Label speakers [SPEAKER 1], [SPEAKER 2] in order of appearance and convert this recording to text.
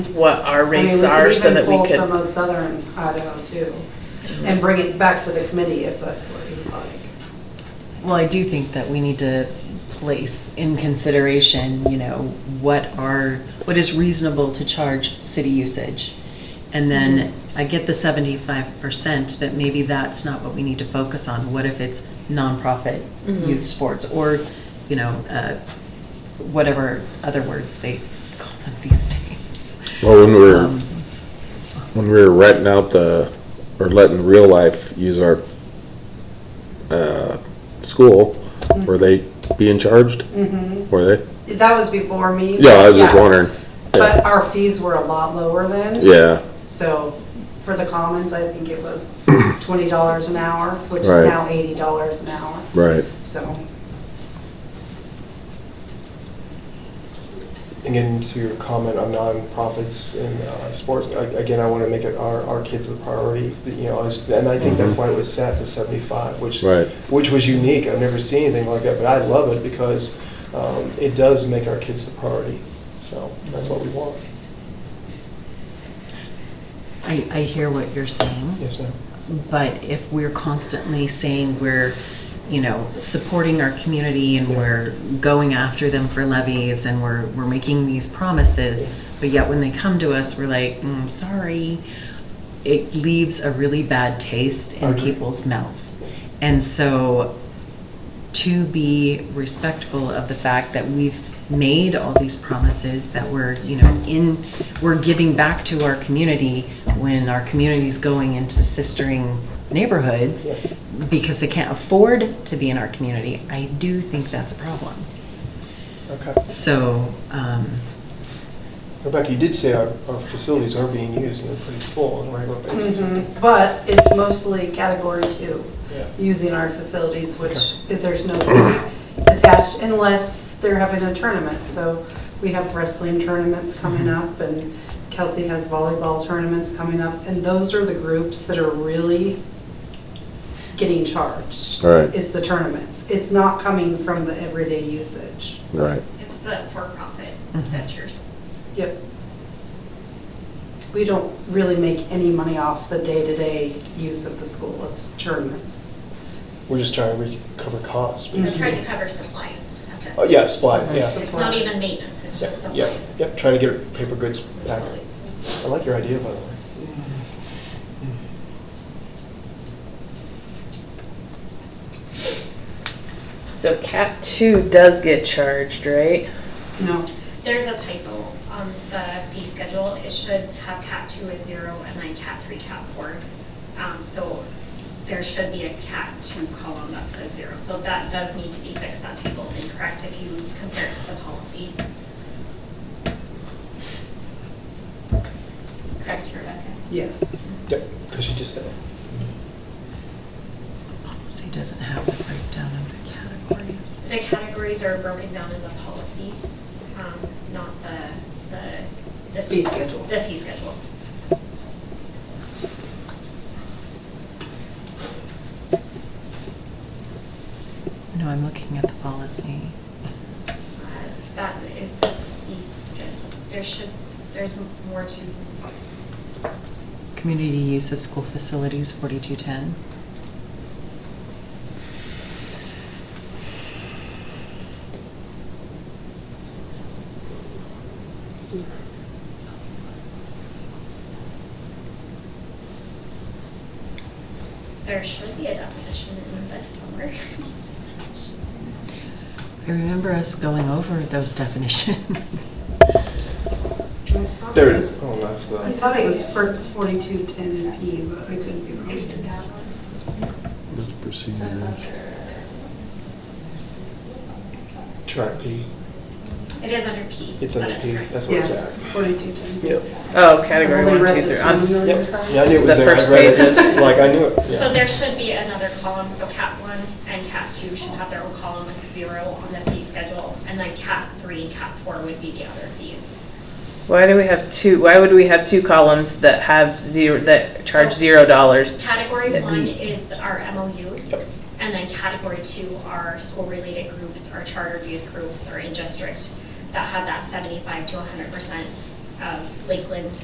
[SPEAKER 1] what our
[SPEAKER 2] I mean,
[SPEAKER 1] rates are so that we
[SPEAKER 2] We could even
[SPEAKER 1] could,
[SPEAKER 2] pull some of Southern Idaho too, and bring it back to the committee if that's what you'd like.
[SPEAKER 3] Well, I do think that we need to place in consideration, you know, what are, what is reasonable to charge city usage? And then I get the seventy-five percent, but maybe that's not what we need to focus on. What if it's nonprofit youth sports or, you know, uh, whatever other words they call them these days?
[SPEAKER 4] Well, when we were,
[SPEAKER 3] Um,
[SPEAKER 4] when we were renting out the, or letting real life use our, uh, school, were they being charged? Were they?
[SPEAKER 2] That was before me.
[SPEAKER 4] Yeah, I was just
[SPEAKER 2] yeah.
[SPEAKER 4] wondering.
[SPEAKER 2] But our fees were a lot lower then.
[SPEAKER 4] Yeah,
[SPEAKER 2] So for the commons, I think it was twenty dollars an hour, which is
[SPEAKER 4] Right.
[SPEAKER 2] now eighty dollars an hour,
[SPEAKER 4] right.
[SPEAKER 2] so.
[SPEAKER 5] Again, to your comment on nonprofits and uh, sports, a- again, I want to make it our, our kids a priority, that, you know, as- and I think that's why it was set to 75, which,
[SPEAKER 4] Right.
[SPEAKER 5] which was unique. I've never seen anything like that, but I love it because um, it does make our kids the priority. So that's what we want.
[SPEAKER 3] I, I hear what you're saying.
[SPEAKER 5] Yes, ma'am.
[SPEAKER 3] But if we're constantly saying we're, you know, supporting our community and
[SPEAKER 5] Yeah.
[SPEAKER 3] we're going after them for levies and we're, we're making these promises, but yet when they come to us, we're like, mm, sorry, it leaves a really bad taste in
[SPEAKER 5] Agree.
[SPEAKER 3] people's mouths. And so to be respectful of the fact that we've made all these promises that we're, you know, in, we're giving back to our community when our community's going into sistering neighborhoods
[SPEAKER 5] Yeah.
[SPEAKER 3] because they can't afford to be in our community, I do think that's a problem.
[SPEAKER 5] Okay.
[SPEAKER 3] So, um,
[SPEAKER 5] Rebecca, you did say our, our facilities are being used and they're pretty full on a regular basis.
[SPEAKER 2] Mhm. But it's mostly category two,
[SPEAKER 5] Yeah.
[SPEAKER 2] using our facilities, which there's no fee attached unless they're having a tournament. So we have wrestling tournaments coming up and Kelsey has volleyball tournaments coming up. And those are the groups that are really getting charged.
[SPEAKER 4] Right.
[SPEAKER 2] Is the tournaments. It's not coming from the everyday usage.
[SPEAKER 4] Right.
[SPEAKER 6] It's the for-profit
[SPEAKER 3] Mhm.
[SPEAKER 5] Mm-hmm.
[SPEAKER 6] ventures.
[SPEAKER 2] Yep. We don't really make any money off the day-to-day use of the school. It's tournaments.
[SPEAKER 5] We're just trying to recover costs.
[SPEAKER 6] We're just
[SPEAKER 5] basically.
[SPEAKER 6] trying to cover supplies at this
[SPEAKER 5] Mm-hmm. Oh,
[SPEAKER 6] point.
[SPEAKER 5] yeah, supply, yeah.
[SPEAKER 6] It's not even maintenance, it's just
[SPEAKER 5] Yeah,
[SPEAKER 6] supplies.
[SPEAKER 5] yep, trying to get paper goods back. I like your idea, by the way.
[SPEAKER 1] so cat two does get charged, right?
[SPEAKER 2] No.
[SPEAKER 6] There's a typo on the fee schedule. It should have cat two as zero and then cat three, cat four. Um, So there should be a cat two column that says zero. So that does need to be fixed. That table is incorrect if you compare it to the policy. Correct, Rebecca?
[SPEAKER 2] Yes.
[SPEAKER 5] Yep, because you just said it.
[SPEAKER 3] policy doesn't have the breakdown of the categories.
[SPEAKER 6] The categories are broken down in the policy, um, not the, the. the-
[SPEAKER 2] Fee schedule.
[SPEAKER 6] The fee schedule.
[SPEAKER 3] No, I'm looking at the policy.
[SPEAKER 6] Uh, That is the fee schedule. There should, there's more to,
[SPEAKER 3] Community use of school facilities, forty-two ten.
[SPEAKER 6] there should be a definition in this somewhere.
[SPEAKER 3] I remember us going over those definitions.
[SPEAKER 5] There it is. Oh, that's
[SPEAKER 2] I
[SPEAKER 5] the,
[SPEAKER 2] thought it was for 4210 P, but I couldn't be wrong.
[SPEAKER 5] track P.
[SPEAKER 6] It is under P.
[SPEAKER 5] It's
[SPEAKER 6] that
[SPEAKER 5] under
[SPEAKER 6] is
[SPEAKER 5] P.
[SPEAKER 6] correct.
[SPEAKER 5] That's where
[SPEAKER 2] Yeah,
[SPEAKER 5] it's at.
[SPEAKER 2] 4210.
[SPEAKER 5] Yep.
[SPEAKER 1] Oh, category
[SPEAKER 2] I've only
[SPEAKER 1] one,
[SPEAKER 2] read
[SPEAKER 1] two, three.
[SPEAKER 2] this
[SPEAKER 1] I'm-
[SPEAKER 2] one.
[SPEAKER 5] Yep. Yeah, I knew it was
[SPEAKER 1] The
[SPEAKER 5] there.
[SPEAKER 1] first
[SPEAKER 5] I read
[SPEAKER 1] page.
[SPEAKER 5] it. Like, I knew it.
[SPEAKER 6] So
[SPEAKER 5] Yeah.
[SPEAKER 6] there should be another column, so cat one and cat two should have their own column with zero on the fee schedule. And then cat three and cat four would be the other fees.
[SPEAKER 1] Why do we have two, why would we have two columns that have zero, that charge
[SPEAKER 6] So-
[SPEAKER 1] zero dollars?
[SPEAKER 6] Category
[SPEAKER 1] That
[SPEAKER 6] one
[SPEAKER 1] we-
[SPEAKER 6] is our MOUs,
[SPEAKER 5] Yep.
[SPEAKER 6] and then category two are school-related groups, our chartered youth groups, or in-district that have that 75 to 100% of Lakeland